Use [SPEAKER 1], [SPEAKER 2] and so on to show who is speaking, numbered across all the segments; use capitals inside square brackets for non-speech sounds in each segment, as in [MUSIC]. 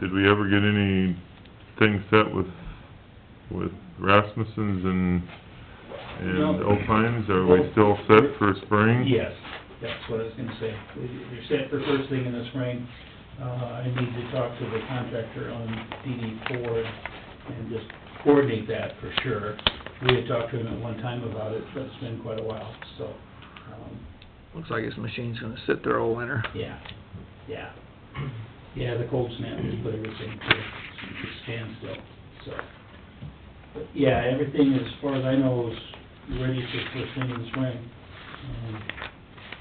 [SPEAKER 1] did we ever get anything set with, with Rasmussen's and, and
[SPEAKER 2] No.
[SPEAKER 1] Alpines? Are we still set for spring?
[SPEAKER 2] Yes, that's what I was gonna say. They're set for first thing in the spring. Uh, I need to talk to the contractor on DD four and just coordinate that for sure. We had talked to him at one time about it, but it's been quite a while, so, um,
[SPEAKER 3] Looks like his machine's gonna sit there all winter.
[SPEAKER 2] yeah, yeah. Yeah, the cold snap has put everything to a standstill, so. But yeah, everything as far as I know is ready for first thing in the spring. Um,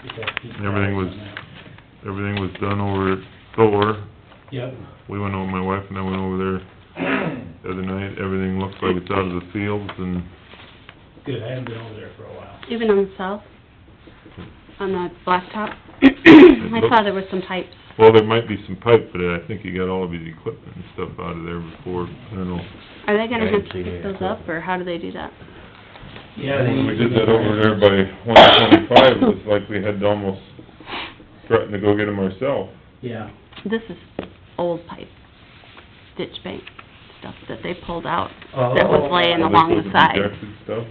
[SPEAKER 2] just have to keep an eye
[SPEAKER 1] Everything
[SPEAKER 2] on
[SPEAKER 1] was-
[SPEAKER 2] that.
[SPEAKER 1] Everything was done over at Thor.
[SPEAKER 2] Yep,
[SPEAKER 1] We went over, my wife and I went over there
[SPEAKER 2] [CLEARS THROAT]
[SPEAKER 1] the other night. Everything looks like it's out of the fields and
[SPEAKER 2] good, I haven't been over there for a while.
[SPEAKER 4] Even on south, on the blacktop, I saw there was some types.
[SPEAKER 1] Well, there might be some pipe, but I think you got all of his equipment and stuff out of there before, I don't know.
[SPEAKER 4] Are they
[SPEAKER 5] Yeah, I
[SPEAKER 4] gonna have
[SPEAKER 5] didn't
[SPEAKER 4] to
[SPEAKER 5] see
[SPEAKER 4] pick
[SPEAKER 5] any.
[SPEAKER 4] those up, or how do they do that?
[SPEAKER 2] Yeah, they-
[SPEAKER 1] We did that over there by one twenty-five, it was like we had to almost threaten to go get him ourselves.
[SPEAKER 2] Yeah,
[SPEAKER 4] This is old pipe, ditch bank stuff that they pulled out,
[SPEAKER 2] Oh.
[SPEAKER 4] that was laying
[SPEAKER 2] And
[SPEAKER 4] along the side.
[SPEAKER 1] Rejected stuff.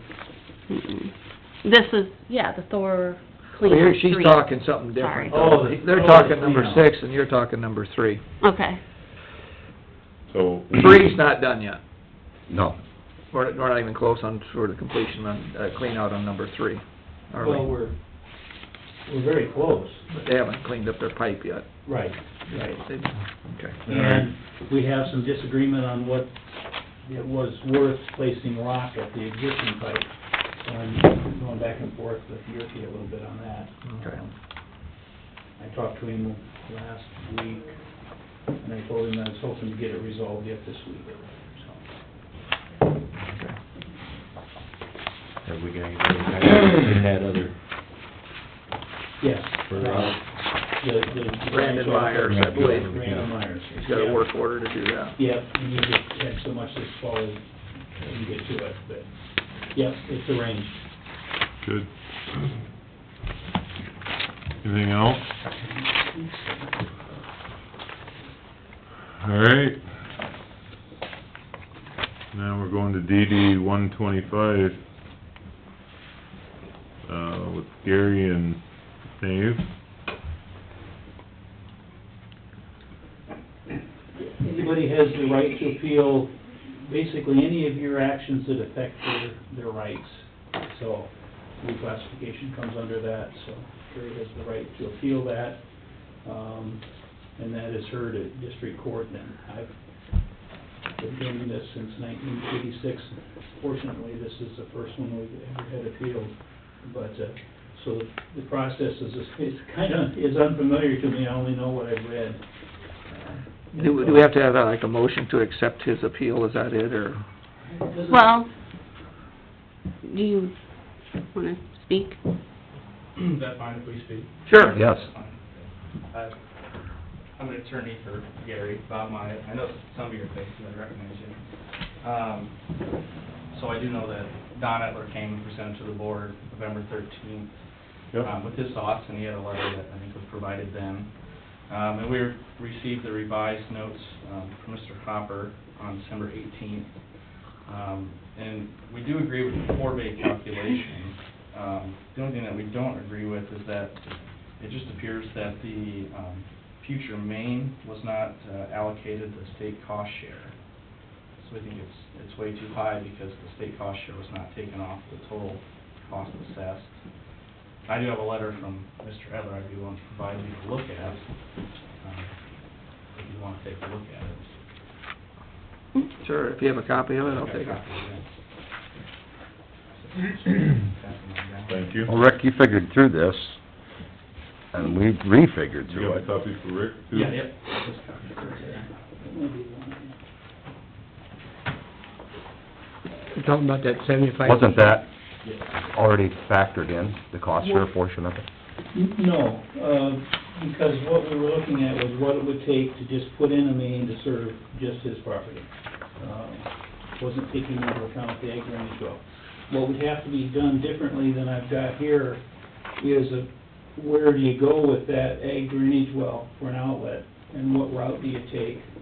[SPEAKER 4] Mm-mm. This is, yeah, the Thor clean
[SPEAKER 3] Here,
[SPEAKER 4] three.
[SPEAKER 3] she's talking something
[SPEAKER 4] Sorry.
[SPEAKER 3] different.
[SPEAKER 2] Oh, the-
[SPEAKER 3] They're
[SPEAKER 2] oh,
[SPEAKER 3] talking
[SPEAKER 2] the
[SPEAKER 3] number
[SPEAKER 2] cleanout.
[SPEAKER 3] six, and you're talking number three.
[SPEAKER 4] Okay,
[SPEAKER 1] so.
[SPEAKER 3] Three's not done yet.
[SPEAKER 5] No.
[SPEAKER 3] We're, we're not even close on, sort of completion on, uh, clean out on number three, are
[SPEAKER 2] well,
[SPEAKER 3] we?
[SPEAKER 2] we're, we're very close.
[SPEAKER 3] But They haven't cleaned up their pipe yet.
[SPEAKER 2] Right, right.
[SPEAKER 3] They- Okay.
[SPEAKER 2] And we have some disagreement on what it was worth placing rock at the existing pipe. So I'm going back and forth with Yurki a little bit on that.
[SPEAKER 3] Okay.
[SPEAKER 2] Um, I talked to him last week, and I told him I was hoping to get it resolved yet this week, so.
[SPEAKER 5] Have we got any in that other,
[SPEAKER 2] Yes.
[SPEAKER 5] for, uh,
[SPEAKER 2] The, the...
[SPEAKER 3] Brandon Myers, I believe.
[SPEAKER 2] Brandon Myers.
[SPEAKER 3] He's got a work order to do that.
[SPEAKER 2] Yep, and you just had so much this fall, you can get to it, but, yep, it's arranged.
[SPEAKER 1] Good. Anything else? All right. Now we're going to DD one twenty-five, uh, with Gary and Dave.
[SPEAKER 2] Anybody has the right to appeal basically any of your actions that affect their, their rights. So reclassification comes under that, so Carrie has the right to appeal that. Um, and that is heard at district court then. I've been doing this since nineteen eighty-six. Fortunately, this is the first one we've ever had appealed. But, uh, so the process is, is kinda, is unfamiliar to me. I only know what I've read.
[SPEAKER 3] Do, we- do we have to have uh, like a motion to accept his appeal, is that it, or?
[SPEAKER 6] [CLEARS THROAT]
[SPEAKER 2] Doesn't-
[SPEAKER 4] well, do you wanna speak?
[SPEAKER 6] Is that fine if we speak?
[SPEAKER 3] Sure.
[SPEAKER 5] yes.
[SPEAKER 6] Uh, I'm an attorney for Gary, Bob Myatt. I know some of your faces, I recognize you. Um, So I do know that Don Etler came and presented to the board November thirteenth um, with his thoughts, and he had a letter that I think was provided then. Um, and we received the revised notes, um, from Mr. Hopper on December eighteenth. Um, and we do agree with the four-bay calculation. Um, the only thing that we don't agree with is that it just appears that the, um, future main was not uh, allocated the state cost share. So we think it's, it's way too high because the state cost share was not taken off the total cost assessed. I do have a letter from Mr. Edler I'd be willing to provide you to look at, um, if you want to take a look at it.
[SPEAKER 3] Sure, if you have a copy of it, I'll take it.
[SPEAKER 6] it.
[SPEAKER 1] Thank you.
[SPEAKER 5] Well, Rick, you figured through this, and we refigured
[SPEAKER 1] You
[SPEAKER 5] through
[SPEAKER 1] got a
[SPEAKER 5] it.
[SPEAKER 1] copy for Rick too?
[SPEAKER 6] Yeah, yep.
[SPEAKER 7] You're talking about that seventy-five?
[SPEAKER 5] Wasn't that already factored in, the cost share portion of it?
[SPEAKER 2] No, uh, because what we were looking at was what it would take to just put in a main to serve just his property. Uh, Wasn't taking into account the ag range well. What would have to be done differently than I've got here is a, where do you go with that ag drainage well for an outlet? And what route do you take?